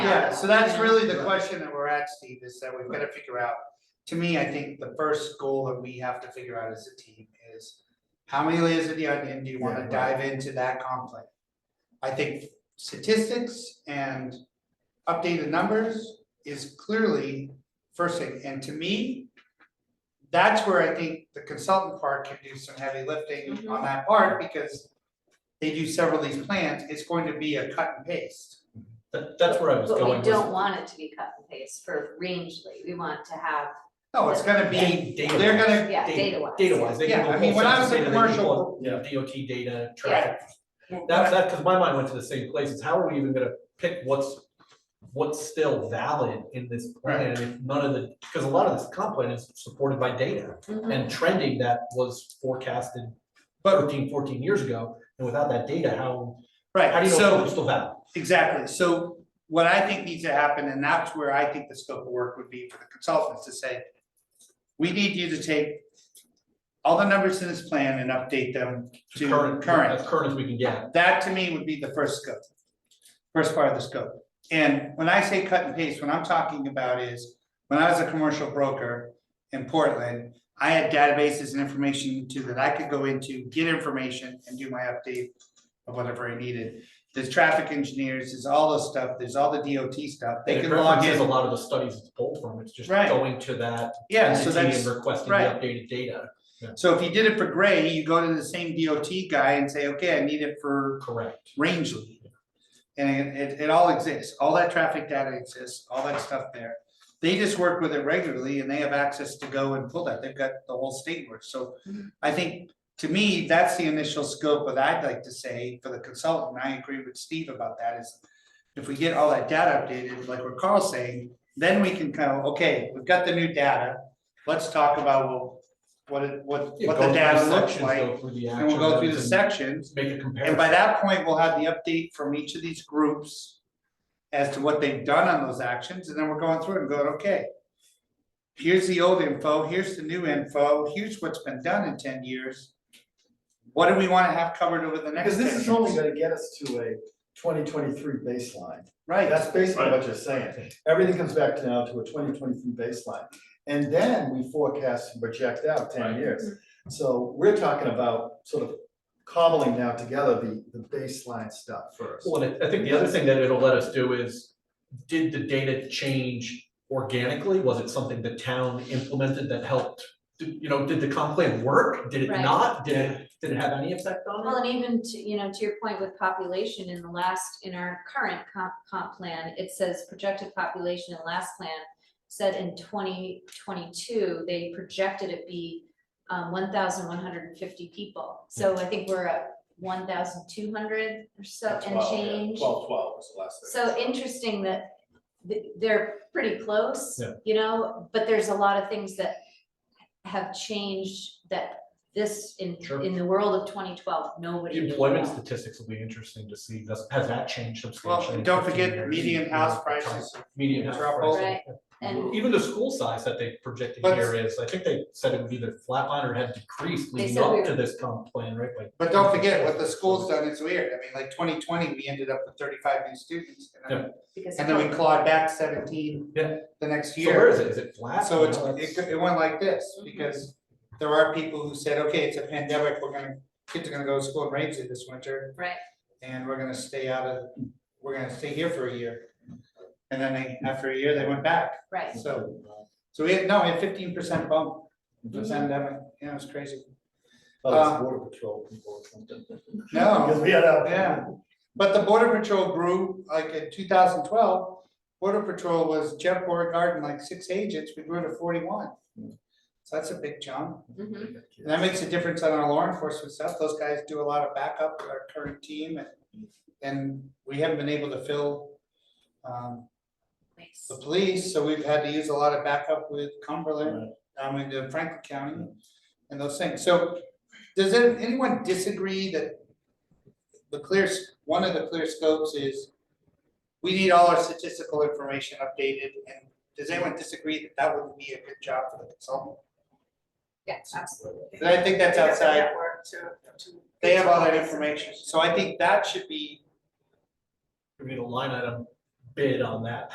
Yeah, so that's Yeah. really the question that we're at, Steve, is that we've gotta figure out, to me, I think the first goal that we have to figure out as a team is. How many layers of the onion do you Yeah, wanna right. dive into that conflict? I think statistics and updated numbers is clearly first thing, and to me. That's where I think the consultant part can do some heavy lifting Mm-hmm. on that part, because. They do several of these plans, it's going to be a cut and paste. That, that's where I was But going we was don't want it to be cut and paste for Rangely, we want to have, No, it's gonna be, data- they're gonna, yeah, data- data wise. Data wise, they Yeah, can I do mean, whole when I was census a data, they can commercial- pull up DOT data, Yeah. traffic. That's, that, cause my mind went to the same place, is how are we even gonna pick what's, what's still valid in this plan if none of the, cause a lot of this comp plan is supported by data. Mhm. And trending that was forecasted But- 13, 14 years ago, and without that data, how, how do right, you know so, it's still valid? exactly, so what I think needs to happen, and that's where I think the scope of work would be for the consultants to say. We need you to take all the numbers in this plan and update them to As current, current as we can get. that to me would be the first scope. First part of the scope, and when I say cut and paste, what I'm talking about is, when I was a commercial broker in Portland. I had databases and information to that I could go into, get information and do my update of whatever I needed. There's traffic engineers, there's all this stuff, there's all the DOT stuff, And they it can log references in, A lot of the studies it's pulled from, it's just Right. going to that yeah, so entity that's. and requesting the right. updated data, So if you did it for Gray, you go to the same DOT guy and say, okay, I need it for correct? Rangeley. And it, it all exists, all that traffic data exists, all that stuff there. They just work with it regularly and they have access to go and pull that, they've got the whole state work, so. Mhm. I think, to me, that's the initial scope that I'd like to say for the consultant, and I agree with Steve about that is. If we get all that data updated, like what Carl's saying, then we can kind of, okay, we've got the new data, let's talk about, well. What it, what, Yeah, what go the through data looks sections, like, go through the and we'll go through the sections. actions and Make a comparison. And by that point, we'll have the update from each of these groups as to what they've done on those actions, and then we're going through and going, okay. Here's the old info, here's the new info, here's what's been done in ten years. What do we wanna have covered over the next Because ten this years? is only gonna get us to a twenty twenty-three baseline. Right, That's basically what you're saying. Everything comes back to now to a twenty twenty-three baseline. And then we forecast and project out ten Right. years. So we're talking about sort of cobbling now together the, the baseline stuff first. Well, and I I think the other thing that it'll let us do is, did the data change organically? Was it something the town implemented that helped? Did- You know, did the comp plan work? Did it Right. not? Did it, did it have any effect on Well, it? and even to, you know, to your point with population in the last, in our current comp, comp plan, it says projected population in last plan. Said in twenty twenty-two, they projected it be um one thousand one hundred and fifty people. Hmm. So I think we're at one thousand two hundred or so and change. Twelve, twelve was the last thing. So interesting that th- they're pretty close, Yeah. you know, but there's a lot of things that have changed that this in Sure. in the world of twenty twelve, nobody The knew Employment about. statistics will be interesting to see, does, has that changed well, substantially? and in don't 15 forget years? median house prices, Median house Drop prices. Right, and Even the school size that they projected But- here is, I think they said it would either flatline or had decreased They leading said we up to were- this comp plan, right? Like- but don't forget what the school's done, it's weird, I mean, like twenty twenty, we ended up with thirty-five new students. and then- because. And then we clawed back seventeen Yeah. the next So year. where is it? Is it flat? So You know, it's, that's- it, it went like this, because there are people who said, okay, it's a pandemic, we're gonna, kids are gonna go to school in Ramsey this winter, Right, and we're gonna stay out of, we're gonna stay here for a year. And then they, after a year, they went back, right, so, so we had, no, we had fifteen percent bump, for the pandemic, you know, it's crazy, Oh, Um, it's border patrol people or something. no. Oh. Because we had a- Yeah, but the border patrol grew, like in two thousand twelve, border patrol was Jeff Borgard and like six agents, we grew to forty-one. So that's a big jump. mhm. And that makes a difference on our law enforcement stuff, those guys do a lot of backup with our current team and, and we haven't been able to fill. Um, Nice. the police, so we've had to use a lot of backup with Cumberland, I mean, the Franklin County and those things, so. Does any- anyone disagree that the clear, s- one of the clear scopes is. We need all our statistical information updated, and does anyone disagree that that would be a good job for the consultant? Yes, absolutely. And I think that's outside Network to- to- They have all that information, so I think that should be, We need a line item bid on that